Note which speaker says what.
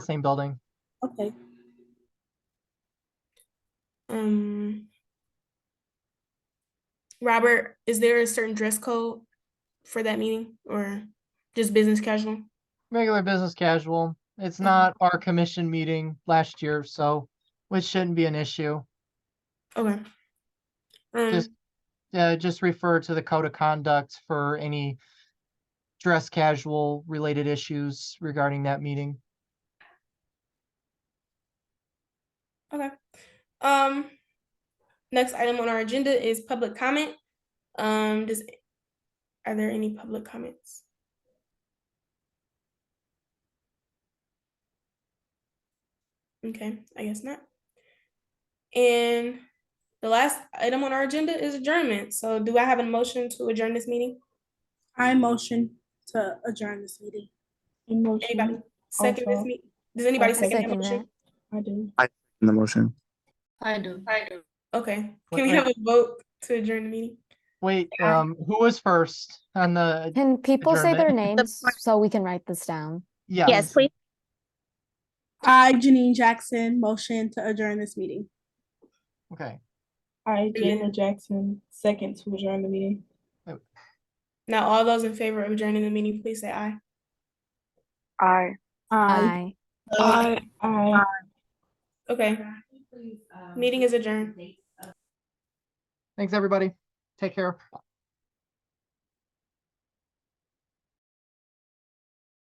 Speaker 1: same building.
Speaker 2: Okay. Um, Robert, is there a certain dress code for that meeting or just business casual?
Speaker 1: Regular business casual. It's
Speaker 2: Mhm.
Speaker 1: not
Speaker 3: Mm-hmm.
Speaker 1: our commission meeting last year, so which shouldn't be an issue.
Speaker 2: Okay. Um,
Speaker 1: Just- Uh, just refer to the code of conduct for any dress casual related issues regarding that meeting.
Speaker 2: okay. Um, next item on our agenda is public comment. Um, does, are there any public comments? Okay, I guess not. And the last item on our agenda is adjournment. So do I have a motion to adjourn this meeting?
Speaker 4: I motion to adjourn this meeting.
Speaker 2: Anybody second this
Speaker 4: Also-
Speaker 2: meeting? Does anybody
Speaker 4: also
Speaker 2: second that
Speaker 3: second
Speaker 2: motion?
Speaker 4: I do.
Speaker 5: in the motion.
Speaker 3: I do.
Speaker 2: Okay,
Speaker 1: Wait,
Speaker 2: can we
Speaker 1: wait.
Speaker 2: have a vote to adjourn the meeting?
Speaker 1: Wait,
Speaker 2: Yeah.
Speaker 1: um, who was first on the,
Speaker 6: Can people say their
Speaker 1: Adjournment.
Speaker 6: names so we can write this down?
Speaker 1: yeah.
Speaker 3: Yes, please.
Speaker 4: I, Janine Jackson, motion to adjourn this meeting.
Speaker 1: Okay,
Speaker 7: I,
Speaker 2: then-
Speaker 7: Jana Jackson, second to adjourn the meeting.
Speaker 2: Now, all those in favor of adjourning the meeting, please say aye.
Speaker 6: Aye.
Speaker 7: Aye.
Speaker 2: Okay, meeting is adjourned.
Speaker 1: thanks, everybody. Take care.